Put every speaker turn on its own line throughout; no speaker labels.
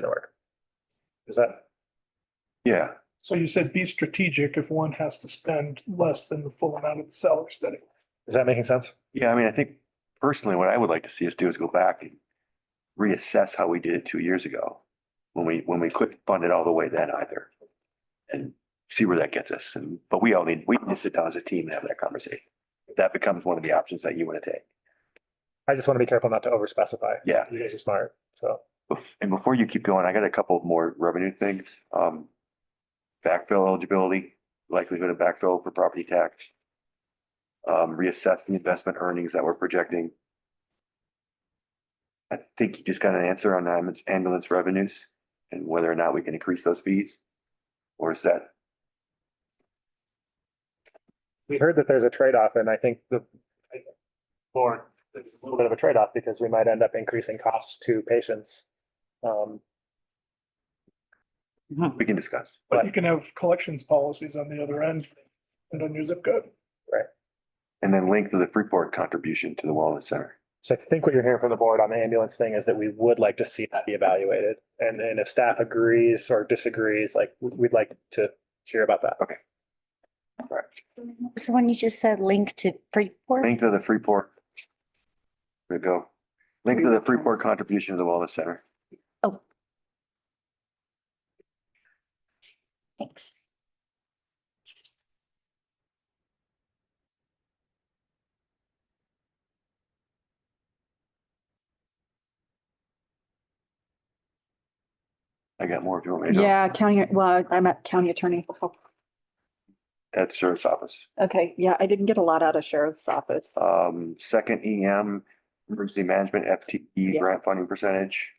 gonna work. Is that?
Yeah,
So you said be strategic if one has to spend less than the full amount of the seller study.
Is that making sense?
yeah, I mean, I think personally, what I would like to see us do is go back and reassess how we did it two years ago. When we, when we couldn't fund it all the way then either. And see where that gets us. And, but we all need, we need to sit down as a team and have that conversation. If That becomes one of the options that you want to take.
I just want to be careful not to over specify.
Yeah.
You guys are smart, so.
Bef- And before you keep going, I got a couple of more revenue things. Um, backfill eligibility, likelihood of backfill for property tax. Um, reassess the investment earnings that we're projecting. I think you just got an answer on ambulance- ambulance revenues and whether or not we can increase those fees. Or is that,
We heard that there's a trade-off and I think the I- board, there's a little bit of a trade-off because we might end up increasing costs to patients. Um,
we can discuss.
But you can have collections policies on the other end and on your zip code.
And then link to the Freeport contribution to the wellness center.
so I think what you're hearing from the board on the ambulance thing is that we would like to see that be evaluated. And, and if staff agrees or disagrees, like, we- we'd like to hear about that.
So when you just said link to Freeport,
Link to the Freeport. There you go. Link to the Freeport contribution to the wellness center.
thanks.
I got more if you want me to. go.
Yeah, county, well, I'm at county attorney.
at sheriff's office.
Okay, yeah, I didn't get a lot out of sheriff's office.
Um, second EM, emergency management FTE
Yeah.
grant funding percentage.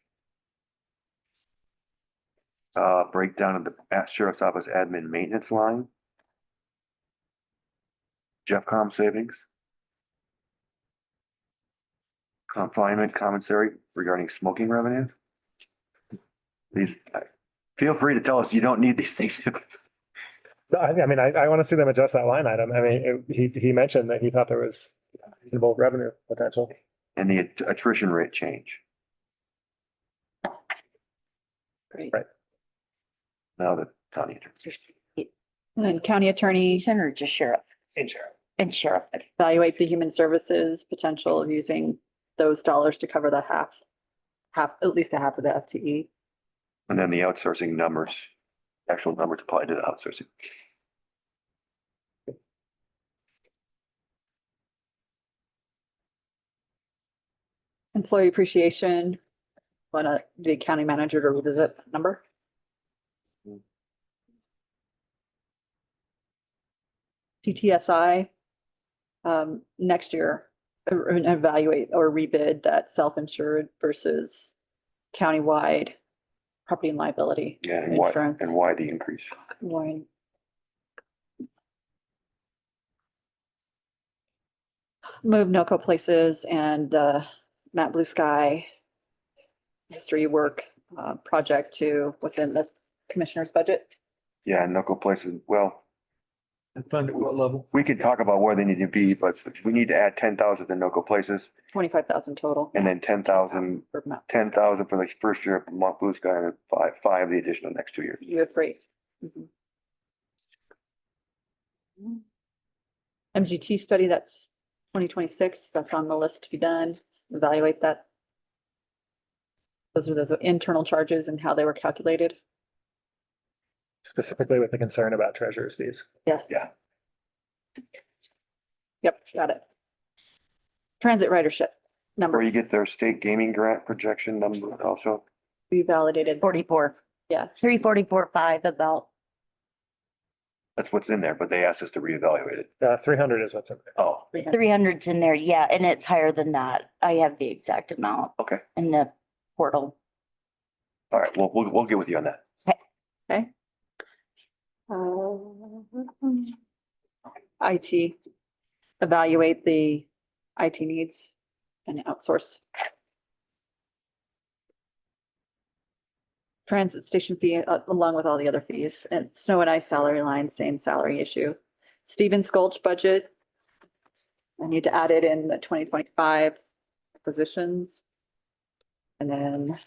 Uh, breakdown of the at sheriff's office admin maintenance line. Jeffcom savings. Confinement commissary regarding smoking revenue. These, I- feel free to tell us you don't need these things.
No, I, I mean, I, I want to see them adjust that line item. I mean, it- he, he mentioned that he thought there was reasonable revenue potential.
And the at- attrition rate change.
Great.
Right.
Now the county attorney.
And then county attorney
Commission Or just sheriff
In sheriff.
and sheriff.
evaluate the human services potential of using those dollars to cover the half, half, at least a half of the E. FTE.
And then the outsourcing numbers, actual numbers applied to the outsourcing.
Employee appreciation, want uh, the county manager to revisit that number? CTSI, um, next year, e- evaluate or rebid that self-insured versus countywide property and liability.
Yeah, and why,
Insurance.
and why the increase.
Warren. Move Noco Places and uh, Matt Blue Sky History Work uh, Project to within the commissioner's budget.
Yeah, and knuckle places, well,
And fund at what level?
we could talk about where they need to be, but we need to add ten thousand to knuckle places
Twenty-five thousand total.
and then ten thousand,
For Matt Blue
ten
Sky.
thousand for the first year of Mont Blue Sky and five, five the additional next two years.
You have three. Mhm. MGT study, that's twenty twenty-six, that's on the list to be done, evaluate that. Those are those internal charges and how they were calculated.
Specifically with the concern about treasurer's fees.
Yes.
Yeah.
Yep, got it. Transit ridership
Or you
numbers,
get their state gaming grant projection number also.
we validated,
Forty-four,
yeah,
three forty-four, five about,
That's what's in there, but they asked us to reevaluate it.
Uh, three hundred is what's in there.
Oh,
three hundreds in there, yeah, and it's higher than that. I have the exact amount
okay.
in the portal.
All right. Well, we'll, we'll get with you on that.
okay. Uh, IT, evaluate the IT needs and outsource. Transit station fee uh, along with all the other fees and snow and ice salary line, same salary issue. Stevens Gulch budget. I need to add it in the twenty twenty-five positions. And then